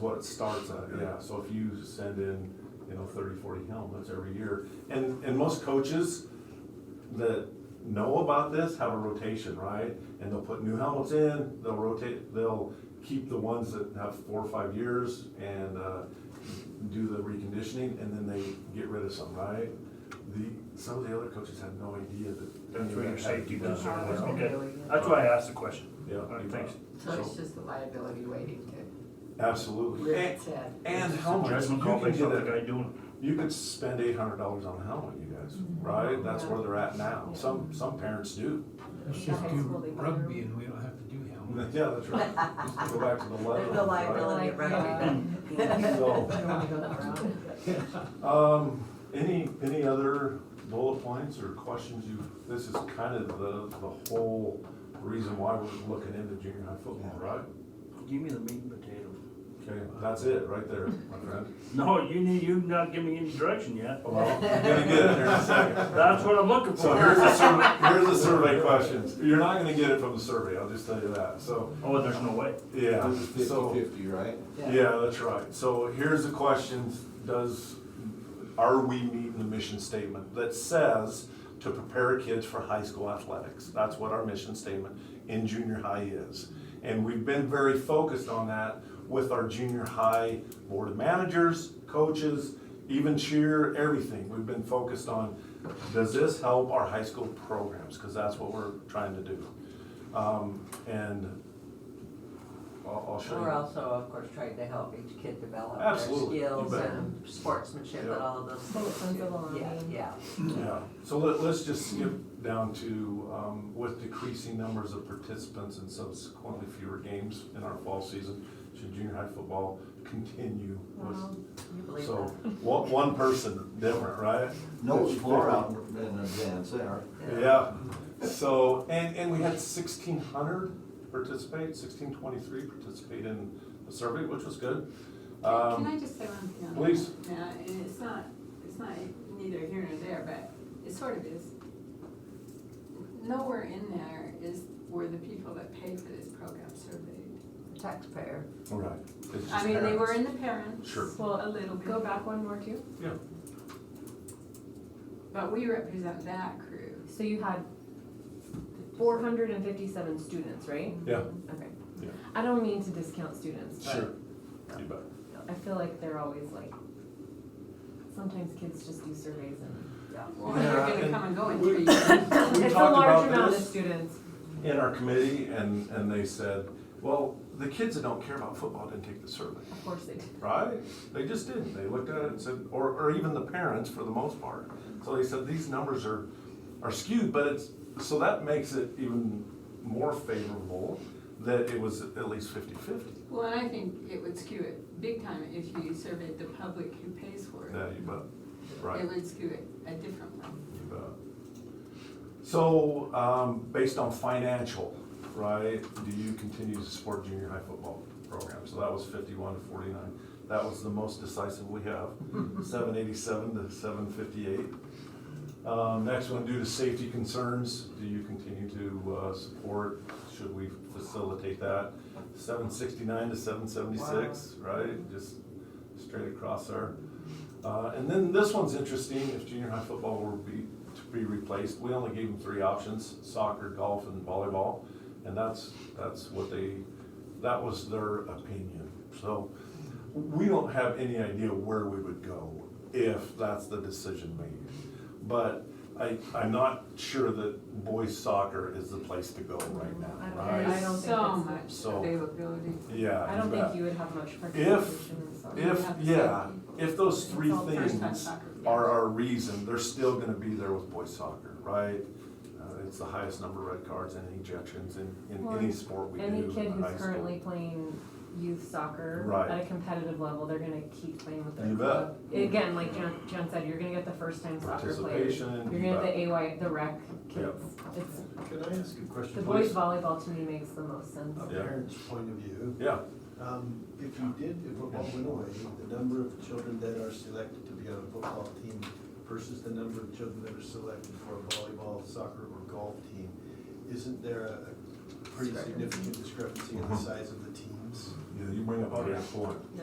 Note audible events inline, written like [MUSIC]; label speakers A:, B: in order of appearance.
A: what it starts at, yeah, so if you send in, you know, 30, 40 helmets every year, and, and most coaches that know about this have a rotation, right? And they'll put new helmets in, they'll rotate, they'll keep the ones that have four or five years and, uh, do the reconditioning, and then they get rid of some, right? The, some of the other coaches have no idea that.
B: That's where your safety
A: Yeah.
B: concern is,
C: Yeah.
B: okay, that's why I asked the question.
A: Yeah.
B: All right, Thanks.
C: So
A: So-
C: it's just the liability waiting to
A: Absolutely.
C: rear
A: And-
C: its head.
A: And
B: It's a
A: helmets, you
B: Judgment call
A: can
B: based off
A: get
B: the
A: a,
B: guy doing
A: you could spend eight hundred dollars on a helmet, you guys, right? That's where they're at now. Some, some parents do. [LAUGHS]
D: Let's just do rugby and we don't have to do helmets.
A: Yeah, that's right. Just go back to the leather.
E: There's no liability at rugby, but.
C: [LAUGHS]
A: So, um, any, any other bullet points or questions you, this is kind of the, the whole reason why we're looking into junior high football, right?
B: it. Give me the meat and potatoes.
A: Okay, that's it, right there, my friend.
B: No, you need, you've not given me any direction yet.
A: Well, I'm gonna get it here in a second.
B: That's what I'm looking
A: So
B: for.
A: here's the survey, here's the survey questions. You're not gonna get it from the survey, I'll just tell you that, so,
B: Oh, there's no way.
A: yeah, so,
F: Fifty-fifty, right?
A: yeah, that's right. So here's the questions, does, are we meeting the mission statement that says to prepare kids for high school athletics? That's what our mission statement in junior high is. And we've been very focused on that with our junior high board of managers, coaches, even cheer, everything. We've been focused on, does this help our high school programs? Because that's what we're trying to do. Um, And I'll, I'll show you.
E: We're also, of course, trying to help each kid develop their
A: Absolutely, you
E: skills
A: bet.
E: and sportsmanship
A: Yeah.
E: and all of those
C: Well, it
E: things.
C: comes
E: too.
C: along,
E: Yeah,
C: yeah.
E: yeah.
A: Yeah, so let, let's just skip down to, um, with decreasing numbers of participants and subsequently fewer games in our fall season, should junior high football continue
E: Wow,
A: with,
E: You believe
A: so, [LAUGHS]
E: that?
A: one, one person different, right?
F: No, it's far out in advance there.
A: Yeah, so, and, and we had sixteen hundred participate, sixteen twenty-three participate in the survey, which was good.
G: Can
A: Um,
G: I just say one thing on that?
A: please.
G: Yeah, and it's not, it's not neither here nor there, but it sort of is. Nowhere in there is, were the people that paid for this program surveyed.
E: Taxpayer.
A: right, it's just
G: I mean, they were
A: parents.
G: in the parents.
A: Sure.
G: Well, a little bit.
H: Go back one more too.
A: Yeah,
G: But we represent that crew.
H: So you had four hundred and fifty-seven students, right?
A: yeah,
C: Mm-hmm.
H: Okay.
A: Yeah.
H: I don't mean to discount students,
A: sure,
H: but
A: you bet.
H: I feel like they're always like, sometimes kids just do surveys and
G: [LAUGHS] Well, they're gonna
A: and
G: come and go in
A: we-
G: three years.
A: We
H: it's a
A: talked
H: large
A: about
H: amount of
A: this.
H: students.
A: in our committee and, and they said, well, the kids that don't care about football didn't take the survey,
H: Of course they do.
A: right? They just didn't. They looked at it and said, or, or even the parents for the most part. So they said, these numbers are, are skewed, but it's, so that makes it even more favorable that it was at least fifty-fifty.
G: Well, and I think it would skew it big time if you surveyed the public who pays for it.
A: Yeah, you bet, right.
G: It would skew it a different way.
A: You bet. So, um, based on financial, right, do you continue to support junior high football program? So that was fifty-one to forty-nine. That was the most decisive we have, seven eighty-seven to seven fifty-eight. Um, next one, due to safety concerns, do you continue to, uh, support? Should we facilitate that? Seven sixty-nine to seven seventy-six, right? Just straight across there. Uh, and then this one's interesting, if junior high football were be, to be replaced, we only gave them three options, soccer, golf, and volleyball. And that's, that's what they, that was their opinion. So we don't have any idea where we would go if that's the decision made. But I, I'm not sure that boys soccer is the place to go right now,
H: Mm-hmm. I don't-
A: right?
H: I don't think
G: So
H: it's-
G: much
A: So-
G: availability.
A: Yeah.
H: I don't
A: bet.
H: think you would have much participation in soccer.
A: If, yeah, if those three
G: It's all first-time
A: things
G: soccer.
A: are our reason, they're still gonna be there with boys soccer, right? Uh, It's the highest number of red cards and ejections in, in
H: Well,
A: any sport we do
H: Any kid
A: in high
H: who's currently
A: school.
H: playing youth soccer
A: Right.
H: at a competitive level, they're gonna keep playing with their
A: You
H: club. Again, like John, John said, you're gonna get the first time soccer players.
A: Participation,
H: You're
A: you
H: gonna get
A: bet.
H: the AY, the rec
A: Yep.
H: kids. It's,
I: Can I ask a
H: the
I: question,
H: boys
I: please?
H: volleyball to me makes the most sense.
I: A
A: Yeah.
I: parent's point of view,
A: yeah,
I: um, if you did, if football went away, the number of children that are selected to be on a football team versus the number of children that are selected for a volleyball, soccer, or golf team, isn't there a a pretty significant discrepancy in the size of the teams?
A: you you bring up a good point.